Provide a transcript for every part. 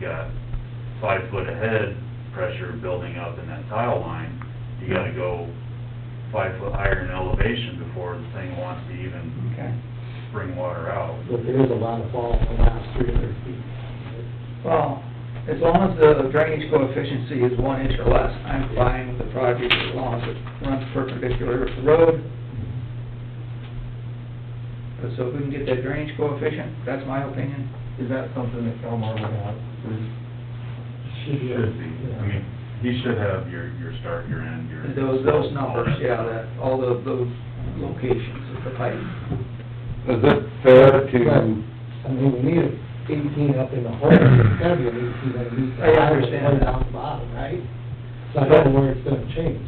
got five foot ahead pressure building up in that tile line, you gotta go five foot higher in elevation before the thing wants to even Okay. bring water out. But there is a lot of fall in the last three hundred feet. Well, as long as the drainage coefficient is one inch or less, I'm fine with the project as long as it runs perpendicular to the road. But so if we can get that drainage coefficient, that's my opinion. Is that something that Elmar would have? Should be. I mean, he should have your, your start, your end, your. Those, those all numbers, that yeah, stuff. that, all the, those locations of the pipe. Is it fair to, But, I mean, we need eighteen up in the hole, it's gotta be an eighteen at least. I understand. Way down the bottom, right? So I don't know where it's gonna change.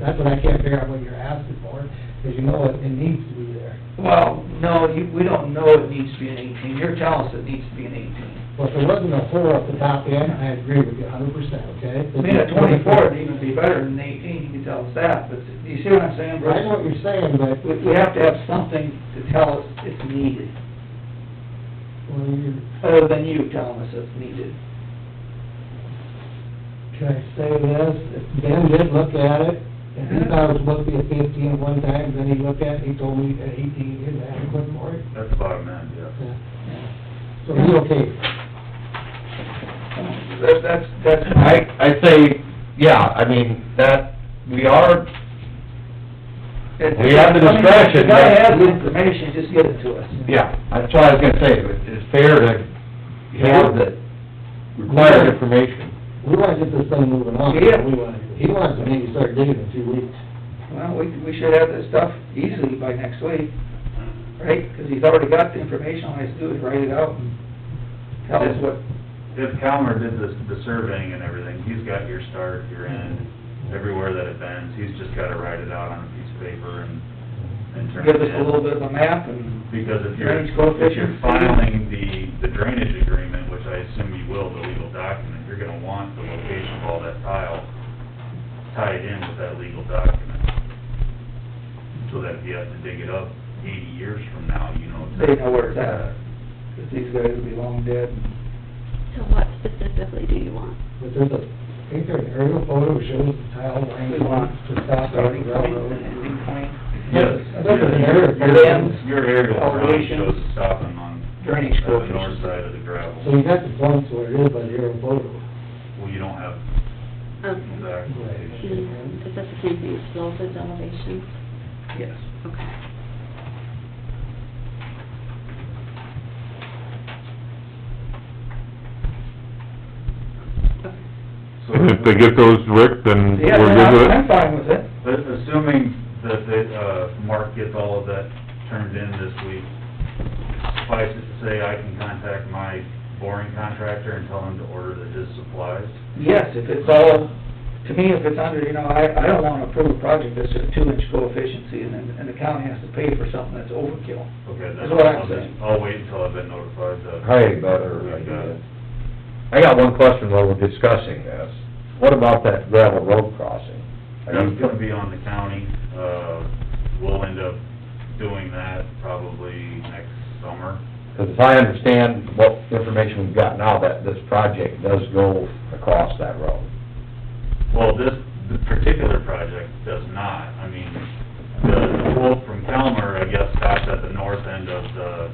That's what I can't figure out what you're asking for, because you know it, it needs to be there. Well, no, you, we don't know it needs to be an eighteen, you're telling us it needs to be an eighteen. Well, if there wasn't a hole at the top end, I agree with you a hundred percent, okay? I mean, a twenty-four would even be better than eighteen, you can tell us that, but you see what I'm saying, Bruce? I know what you're saying, but We, we have to have something to tell us it's needed, Well, you, other than you telling us it's needed. can I say this? If Ben did look at it, and he thought it was supposed to be a fifteen at one time, then he looked at it, he told me that eighteen is adequate for it. That's bottom end, yeah. Yeah. So he's okay. That, that's, that's I, my, I say, yeah, I mean, that, we are, it's. We have the If discretion, the guy but- has the information, just give it to us. yeah, that's what I was gonna say, it- it's fair to have the required information. We wanna get this thing moving on. Yeah. We wanna, he wants to maybe start digging in two weeks. Well, we, we should have this stuff easily by next week, right? Because he's already got the information, all he has to do is write it out and tell us what, If Calmer did the, the surveying and everything, he's got your start, your end, everywhere that it bends, he's just gotta write it out on a piece of paper and, and turn it give in. us a little bit of a map and. Because if you're, Drainage coefficient. if you're filing the, the drainage agreement, which I assume you will, the legal document, you're gonna want the location of all that tile tied in with that legal document. So that if you have to dig it up eighty years from now, you know. They know where it's at. Because these guys will be long dead. So what specifically do you want? But there's a, I think there's an aerial photo shows the tile line We want to stop at the Starting point and railroad. ending point. Yes. I think there's an aerial. Your ends. Your aerial drawing Elevation. shows the stopping on Drainage the north coefficient. side of the So gravel. you got the points where it is by the aerial photo. Well, you don't have Okay. exact location. And Hmm, is that the same thing as slope as elevation? Yes. Okay. So And if they get those, Rick, then Yeah, we're good with it? I'm, I'm fine with it. But assuming that, that, uh, Mark gets all of that turned in this week, suffice it to say, I can contact my boring contractor and tell him to order the, his supplies. Yes, if it's all, to me, if it's under, you know, I, I don't wanna approve a project that's a two-inch coefficient, and, then- and the county has to pay for something that's overkill. Okay, then That's what I'm I'll just, saying. I'll wait until I've been notified that. Hey, better idea. I got one question while we're discussing this. What about that gravel road crossing? Are you- That's gonna be on the county, uh, we'll end up doing that probably next summer. Because as I understand what information we've got now, that this project does go across that road. Well, this, this particular project does not. I mean, the quote from Calmer, I guess, stops at the north end of the,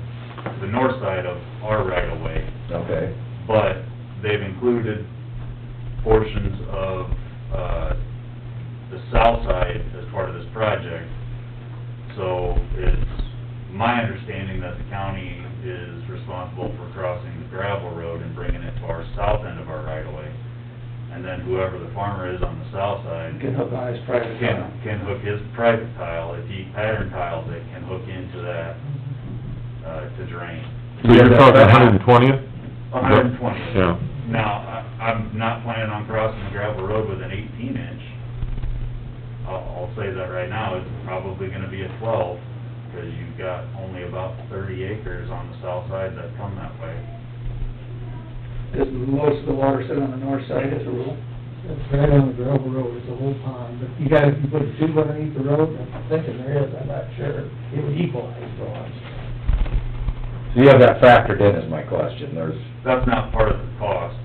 the north side of our right-of-way. Okay. But they've included portions of, uh, the south side as part of this project. So it's my understanding that the county is responsible for crossing the gravel road and bringing it to our south end of our right-of-way. And then whoever the farmer is on the south side You can hook on his private can, ground. can hook his private tile, if he pattern tiles it, can hook into that, uh, to drain. So you're talking a hundred and twentieth? hundred and twenty. Yeah. Now, I, I'm not planning on crossing the gravel road with an eighteen inch. I'll, I'll say that right now, it's probably gonna be a twelve, because you've got only about thirty acres on the south side that come that way. Because most of the water sit on the north side as a rule. It's right on the gravel road, it's a whole pond, but you guys, you put a tube underneath the road, I'm thinking there is, I'm not sure, it would equalize the lots. So you have that factored in, is my question. There's That's not part of the cost,